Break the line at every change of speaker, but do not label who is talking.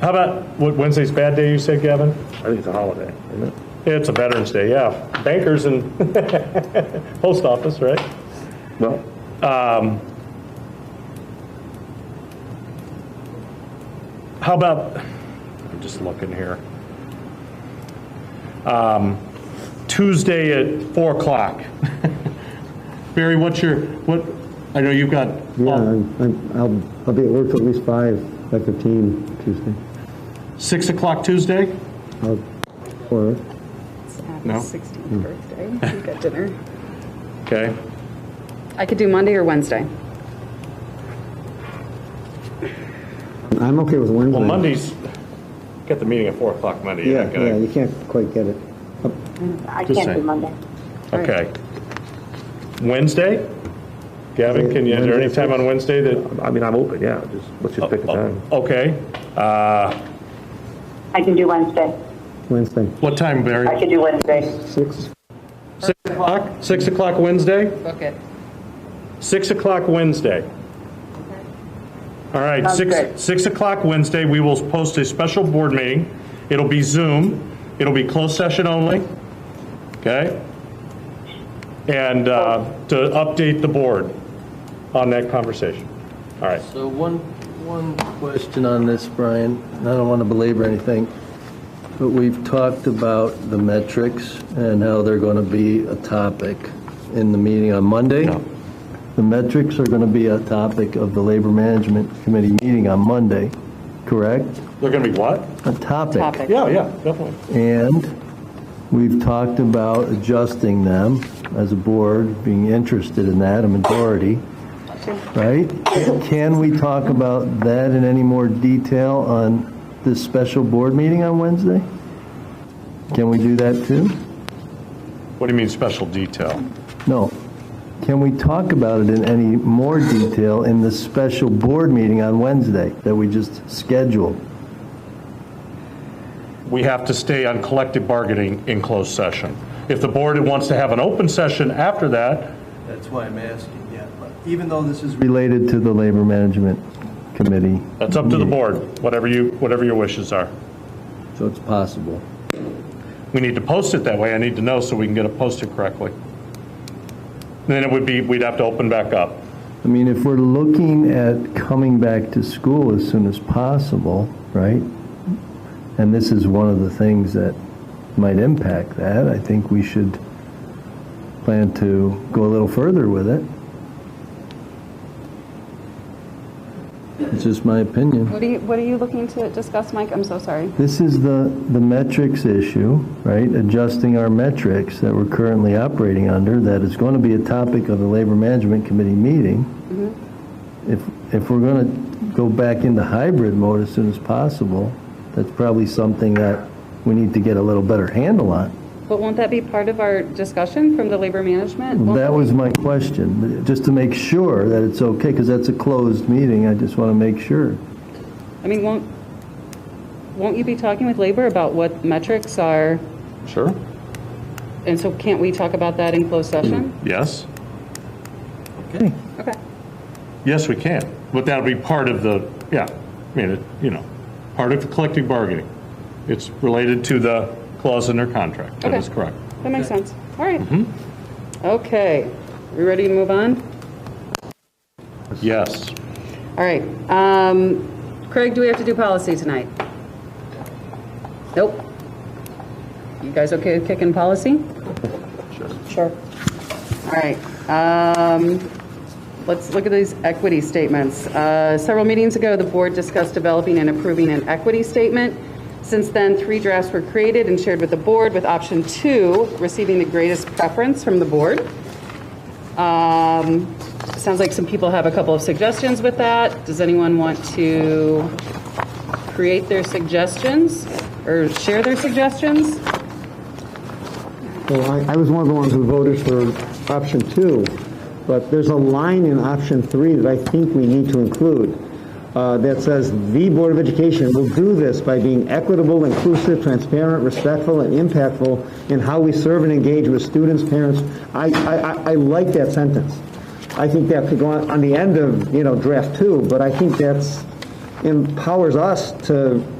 How about, what, Wednesday's a bad day, you said, Gavin?
I think it's a holiday, isn't it?
It's a Veterans Day, yeah. Bankers and post office, right?
Well,
How about, I'm just looking here. Um, Tuesday at 4 o'clock. Barry, what's your, what, I know you've got,
Yeah, I'm, I'm- I'll, I'll be at work till at least five, like fifteen Tuesday.
6 o'clock Tuesday?
I'll, or,
No?
Happy
Hmm.
16th birthday. We got dinner.
Okay.
I could do Monday or Wednesday.
I'm okay with Wednesday.
Well, Monday's, got the meeting at 4 o'clock Monday.
Yeah,
okay.
yeah, you can't quite get it.
I
Just
can't do
saying.
Monday.
Okay. Wednesday? Gavin, can you, is there any time on Wednesday that,
I mean, I'm open, yeah, just, let's just pick a time.
okay. Uh,
I can do Wednesday.
Wednesday,
What time,
I
Barry?
could do Wednesday.
six,
Six o'clock? Six o'clock Wednesday?
Book it.
6 o'clock Wednesday. All right,
Sounds
six
good.
6 o'clock Wednesday, we will post a special board meeting. It'll be Zoom, it'll be closed session only, okay? And uh, to update the board on that conversation. All right,
So one, one question on this, Brian, and I don't want to belabor anything, but we've talked about the metrics and how they're going to be a topic in the meeting on Monday. The metrics are going to be a topic of the Labor Management Committee meeting on Monday, correct?
they're going to be what?
A topic.
Topic.
Yeah, yeah, definitely.
And we've talked about adjusting them as a board, being interested in that, a majority, right? Can we talk about that in any more detail on this special board meeting on Wednesday? Can we do that too?
What do you mean special detail?
No. Can we talk about it in any more detail in the special board meeting on Wednesday that we just scheduled?
we have to stay on collective bargaining in closed session. If the board wants to have an open session after that,
That's why I'm asking, yeah, but even though this is. Related to the Labor Management Committee.
that's up to the board, whatever you, whatever your wishes are.
So it's possible.
We need to post it that way, I need to know so we can get it posted correctly. Then it would be, we'd have to open back up.
I mean, if we're looking at coming back to school as soon as possible, right? And this is one of the things that might impact that, I think we should plan to go a little further with it. It's just my opinion.
What are you, what are you looking to discuss, Mike? I'm so sorry.
This is the, the metrics issue, right? Adjusting our metrics that we're currently operating under, that is going to be a topic of the Labor Management Committee meeting. If, if we're going to go back into hybrid mode as soon as possible, that's probably something that we need to get a little better handle on.
But won't that be part of our discussion from the labor management? Won't
That was my question, just to make sure that it's okay, because that's a closed meeting, I just want to make sure.
I mean, won't, won't you be talking with labor about what metrics are?
Sure.
And so can't we talk about that in closed session?
Hmm.
Yes?
Okay.
Okay.
Yes, we can, but that'll be part of the, yeah, I mean, it- you know, part of the collective bargaining. It's related to the clause in their contract, that is
Okay.
correct.
That makes sense. All right.
Mm-hmm.
Okay. We ready to move on?
Yes.
All right. Um, Craig, do we have to do policy tonight? Nope. You guys okay with kicking policy? Sure. All right. Um, Let's look at these equity statements. Uh, Several meetings ago, the board discussed developing and approving an equity statement. Since then, three drafts were created and shared with the board, with option two receiving the greatest preference from the board. Um, Sounds like some people have a couple of suggestions with that. Does anyone want to create their suggestions or share their suggestions?
Well, I, I was one of the ones who voted for option two, but there's a line in option three that I think we need to include, uh, that says, "The Board of Education will do this by being equitable, inclusive, transparent, respectful, and impactful in how we serve and engage with students, parents." I, I, I- I like that sentence. I think that could go on, on the end of, you know, draft two, but I think that's, empowers us to